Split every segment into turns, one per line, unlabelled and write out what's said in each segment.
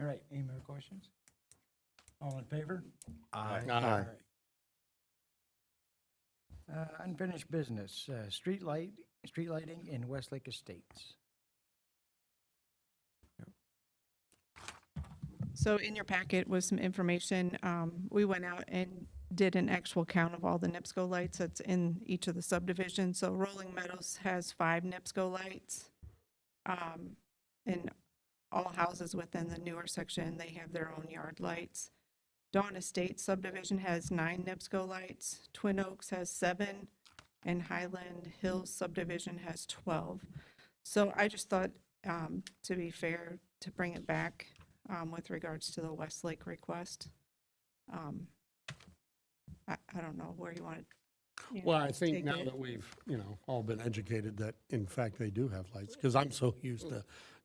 All right, any more questions? All in favor?
Aye.
Uh, Unfinished business, uh, street light, street lighting in Westlake Estates.
So in your packet was some information. Um, We went out and did an actual count of all the NIPSCO lights that's in each of the subdivisions. So Rolling Meadows has five NIPSCO lights. Um, And all houses within the newer section, they have their own yard lights. Dawn Estate subdivision has nine NIPSCO lights. Twin Oaks has seven. And Highland Hills subdivision has 12. So I just thought, um, to be fair, to bring it back, um, with regards to the Westlake request. Um, I, I don't know where you want to.
Well, I think now that we've, you know, all been educated that in fact they do have lights, because I'm so used to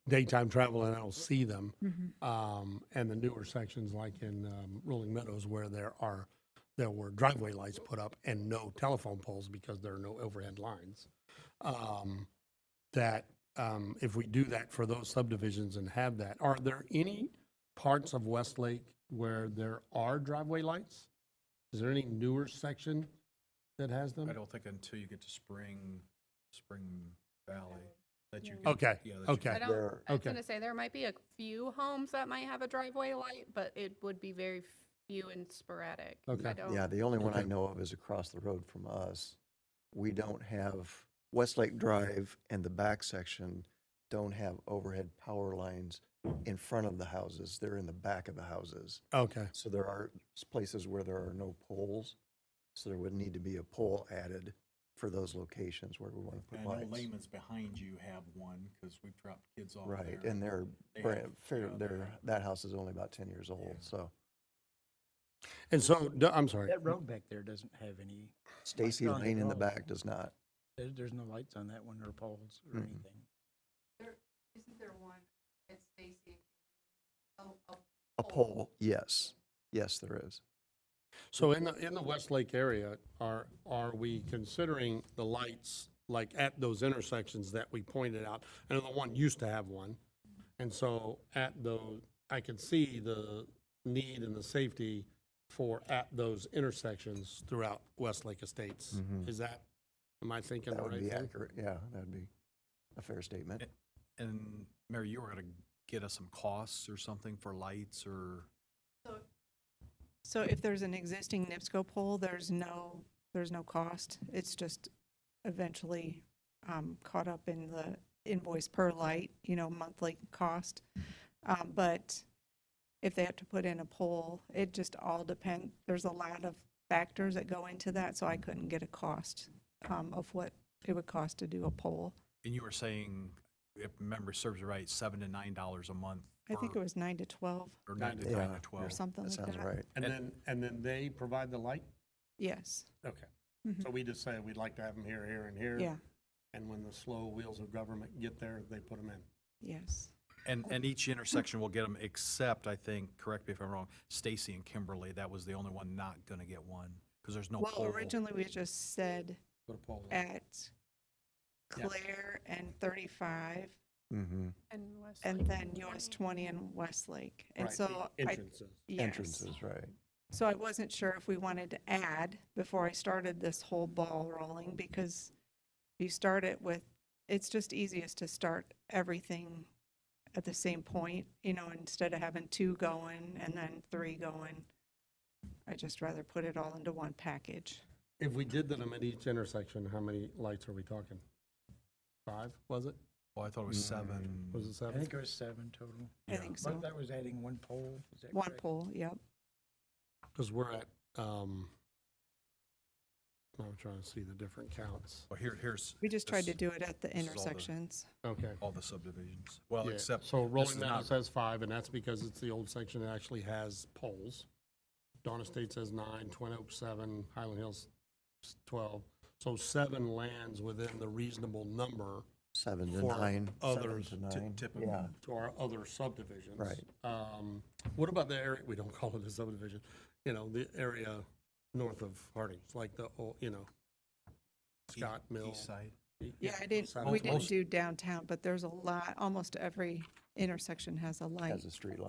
daytime travel and I don't see them. Um, and the newer sections like in, um, Rolling Meadows where there are, there were driveway lights put up and no telephone poles because there are no overhead lines. Um, that, um, if we do that for those subdivisions and have that, are there any parts of Westlake where there are driveway lights? Is there any newer section that has them?
I don't think until you get to Spring, Spring Valley, that you. can-
Okay,
yeah, that you
okay.
I
can-
don't, I was
okay.
gonna say, there might be a few homes that might have a driveway light, but it would be very few and sporadic. I
Okay.
don't-
Yeah, the only one I
Okay.
know of is across the road from us. We don't have, Westlake Drive and the back section don't have overhead power lines in front of the houses. They're in the back of the houses.
Okay,
So there are s- places where there are no poles. So there would need to be a pole added for those locations where we want to
I
put
know
lights.
Layman's behind you have one, because we've dropped kids off there.
Right, and they're,
They
bra-
have-
fair,
yeah,
they're, that house is only about ten years old,
Yeah.
so.
and so, d- I'm sorry,
That road back there doesn't have any,
Stacy
on the
Lane in the
road.
back does not.
there, there's no lights on that one or poles or
Mm-mm.
anything.
Isn't there one at Stacy? Oh, oh,
A pole, yes, yes, there is.
so in the, in the Westlake area, are, are we considering the lights, like at those intersections that we pointed out? I know the one used to have one, and so at those, I can see the need and the safety for at those intersections throughout Westlake Estates.
Mhm.
Is that, am I thinking the
That would
right
be
thing?
accurate, yeah, that'd be a fair statement.
And Mary, you were gonna get us some costs or something for lights or,
So if there's an existing NIPSCO pole, there's no, there's no cost. It's just eventually um, caught up in the invoice per light, you know, monthly cost. Um, But if they have to put in a pole, it just all depend, there's a lot of factors that go into that, so I couldn't get a cost um, of what it would cost to do a pole.
and you were saying, if memory serves you right, seven to nine dollars a month.
I think
for-
it was nine to 12
Or nine to
Yeah,
nine
yeah.
to
or
twelve.
something
That
like that.
sounds right.
And then, and then they provide the light?
Yes,
Okay, so we just say we'd like to have them here, here, and here?
yeah,
And when the slow wheels of government get there, they put them in.
yes.
And, and each intersection will get them, except, I think, correct me if I'm wrong, Stacy and Kimberly, that was the only one not gonna get one, because there's no
Well,
pole.
originally, we just said
Put a pole in.
at
Yeah.
Claire and 35,
Mm-hmm.
And West
and
Lake
then US 20 and Westlake. And
Right, the
so I,
Entrances.
yes.
Entrances, right.
So I wasn't sure if we wanted to add before I started this whole ball rolling, because you start it with, it's just easiest to start everything at the same point, you know, instead of having two going and then three going. i just rather put it all into one package.
If we did them at each intersection, how many lights are we talking? Five, was it?
Oh, I thought it was seven.
Mm, Was it
I
seven?
think it was seven total.
I think so.
But that was adding one pole, is that
One
correct?
pole, yep.
Because we're at, um, I'm trying to see the different counts.
Well, here, here's.
We just tried to
this-
do it at the
this is all the-
intersections.
Okay.
All the subdivisions. Well,
Yeah,
except.
So
this is
Rolling
not-
Meadows says five, and that's because it's the old section that actually has poles. Dawn Estate says nine, Twin Oaks seven, Highland Hills s- twelve. So seven lands within the reasonable number
Seven to
For
nine.
others
Seven to
ty-
nine.
typical.
Yeah,
to our other subdivisions.
Right.
Um, What about the area, we don't call it a subdivision, you know, the area north of Harding's, like the, old, you know,
E-
Scott Mill. E-
East side.
Yeah, I didn't,
South
we
Mill.
didn't do downtown, but there's a lot, almost every intersection has a light.
has a street light.